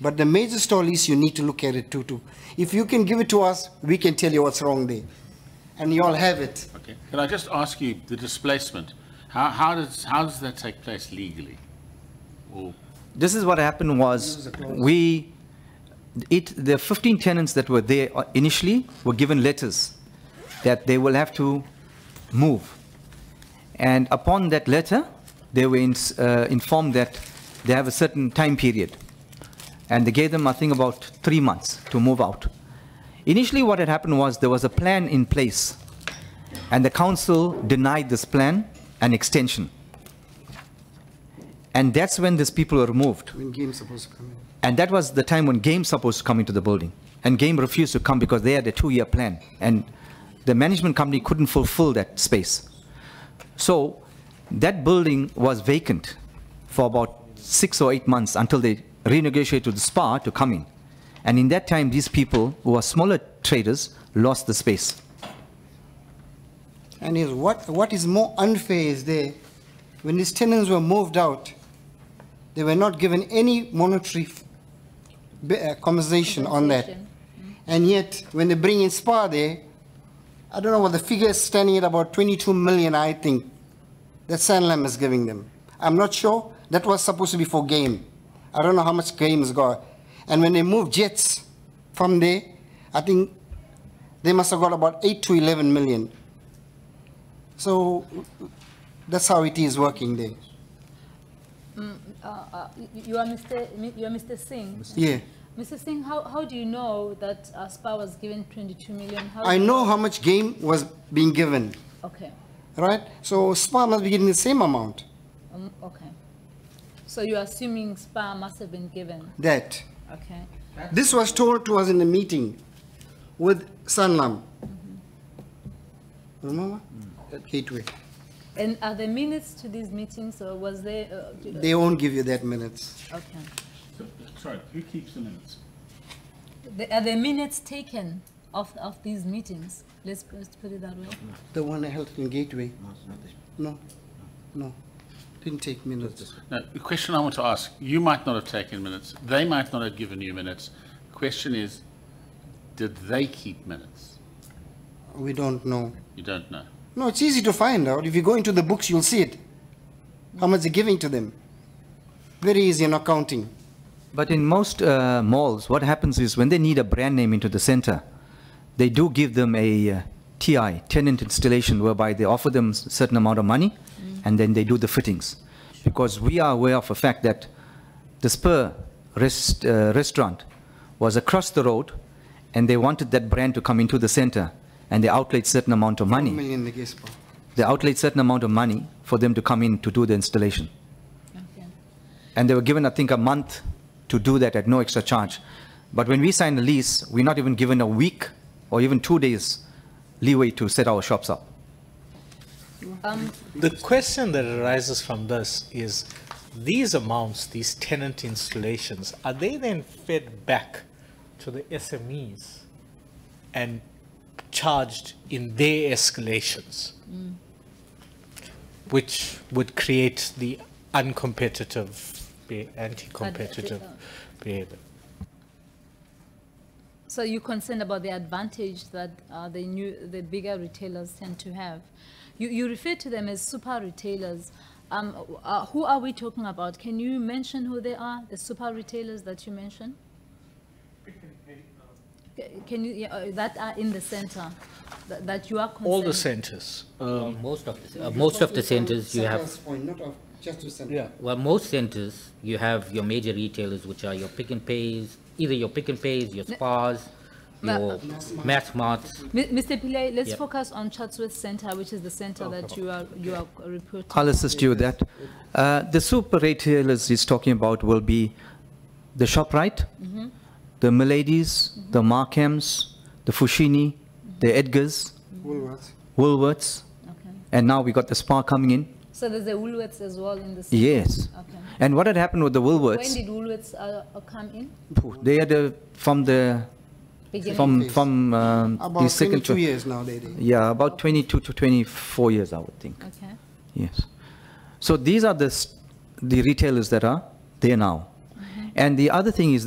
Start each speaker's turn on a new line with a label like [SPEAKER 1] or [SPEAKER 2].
[SPEAKER 1] But the major stall is you need to look at it too, too. If you can give it to us, we can tell you what's wrong there. And you all have it.
[SPEAKER 2] Okay, can I just ask you, the displacement, how, how does, how does that take place legally? Or,
[SPEAKER 3] This is what happened was, we, it, the 15 tenants that were there initially were given letters that they will have to move. And upon that letter, they were ins- uh, informed that they have a certain time period. And they gave them, I think, about three months to move out. Initially, what had happened was, there was a plan in place, and the council denied this plan an extension. And that's when these people were removed.
[SPEAKER 1] When game's supposed to come in.
[SPEAKER 3] And that was the time when Game supposed to come into the building. And Game refused to come because they had a two-year plan. And the management company couldn't fulfill that space. So that building was vacant for about six or eight months until they renegotiated with the SPA to come in. And in that time, these people, who are smaller traders, lost the space.
[SPEAKER 1] And is what, what is more unfair is there, when these tenants were moved out, they were not given any monetary f- be- uh, compensation on that. And yet, when they bring in SPA there, I don't know what the figure is standing at about 22 million, I think, that Sanlam is giving them. I'm not sure, that was supposed to be for game. I don't know how much game's got. And when they moved Jets from there, I think they must have got about 8 to 11 million. So that's how it is working there.
[SPEAKER 4] Uh, uh, y- You are Mr. Mi- You are Mr. Singh.
[SPEAKER 1] Yeah.
[SPEAKER 4] Mr. Singh, how, how do you know that uh, SPA was given 22 million? How
[SPEAKER 1] I
[SPEAKER 4] do you-
[SPEAKER 1] know how much game was being given,
[SPEAKER 4] Okay,
[SPEAKER 1] right? So SPA must be getting the same amount,
[SPEAKER 4] um, okay. So you're assuming SPA must have been given,
[SPEAKER 1] that.
[SPEAKER 4] okay?
[SPEAKER 1] This was told to us in the meeting with Sanlam. Remember? At Gateway.
[SPEAKER 4] And are there minutes to these meetings or was there? uh, do-
[SPEAKER 1] They won't give you that minutes.
[SPEAKER 4] Okay.
[SPEAKER 2] sorry, who keeps the minutes?
[SPEAKER 4] The- Are there minutes taken of, of these meetings? Let's put let's put it that way.
[SPEAKER 1] The one I held in Gateway. No, no, didn't take minutes.
[SPEAKER 2] No, the question I want to ask, you might not have taken minutes, they might not have given you minutes. Question is, did they keep minutes?
[SPEAKER 1] We don't know.
[SPEAKER 2] You don't know.
[SPEAKER 1] No, it's easy to find out. If you go into the books, you'll see it. How much they're giving to them. Very easy in accounting.
[SPEAKER 3] But in most uh, malls, what happens is when they need a brand name into the center, they do give them a uh, TI, tenant installation, whereby they offer them s- certain amount of money, and then they do the fittings. Because we are aware of a fact that the Spur rest, uh, restaurant was across the road, and they wanted that brand to come into the center, and they outlaid certain amount of
[SPEAKER 5] Hmm.
[SPEAKER 1] One
[SPEAKER 3] money.
[SPEAKER 1] million the gas bill.
[SPEAKER 3] They outlaid certain amount of money for them to come in to do the installation.
[SPEAKER 4] Okay.
[SPEAKER 3] And they were given, I think, a month to do that at no extra charge. But when we sign a lease, we're not even given a week or even two days leeway to set our shops up.
[SPEAKER 6] The question that arises from this is, these amounts, these tenant installations, are they then fed back to the SMEs and charged in their escalations? Which would create the uncompetitive, be- anti-competitive
[SPEAKER 4] Advantage.
[SPEAKER 6] behavior.
[SPEAKER 4] So you're concerned about the advantage that uh, the new, the bigger retailers tend to have. You, you refer to them as super retailers. Um, uh, who are we talking about? Can you mention who they are, the super retailers that you mentioned? C- Can you, yeah, uh, that are in the center, that, that you are concerned?
[SPEAKER 6] All the centers, um,
[SPEAKER 5] Most of, the- uh, most of the centers you have,
[SPEAKER 1] Centers point, not of, just to center.
[SPEAKER 6] yeah.
[SPEAKER 5] well, most centers, you have your major retailers, which are your pick and pays, either your pick and pays, your spas,
[SPEAKER 4] Ma-
[SPEAKER 5] your mass marts.
[SPEAKER 4] Mi- Mr. Pillay, let's
[SPEAKER 5] Yep.
[SPEAKER 4] focus on Chatsworth Center, which is the center that you are, you are reporting.
[SPEAKER 3] I'll assist you with that. Uh, the super retailers he's talking about will be the ShopRite,
[SPEAKER 4] Mm-hmm.
[SPEAKER 3] the Miladies, the Markhams, the Fushini,
[SPEAKER 4] Mm-hmm.
[SPEAKER 3] the Edgars,
[SPEAKER 1] Woolworths.
[SPEAKER 3] Woolworths,
[SPEAKER 4] Okay.
[SPEAKER 3] and now we got the Spa coming in.
[SPEAKER 4] So there's a Woolworths as well in the center?
[SPEAKER 3] Yes.
[SPEAKER 4] Okay.
[SPEAKER 3] And what had happened with the
[SPEAKER 4] When
[SPEAKER 3] Woolworths,
[SPEAKER 4] did Woolworths uh, uh, come in?
[SPEAKER 3] phew, they had a, from the,
[SPEAKER 4] Beginning?
[SPEAKER 3] from, from um, the
[SPEAKER 1] About
[SPEAKER 3] second.
[SPEAKER 1] twenty-two years now they did.
[SPEAKER 3] Yeah, about 22 to 24 years, I would think,
[SPEAKER 4] Okay,
[SPEAKER 3] yes. So these are the, s- the retailers that are there now. And the other thing is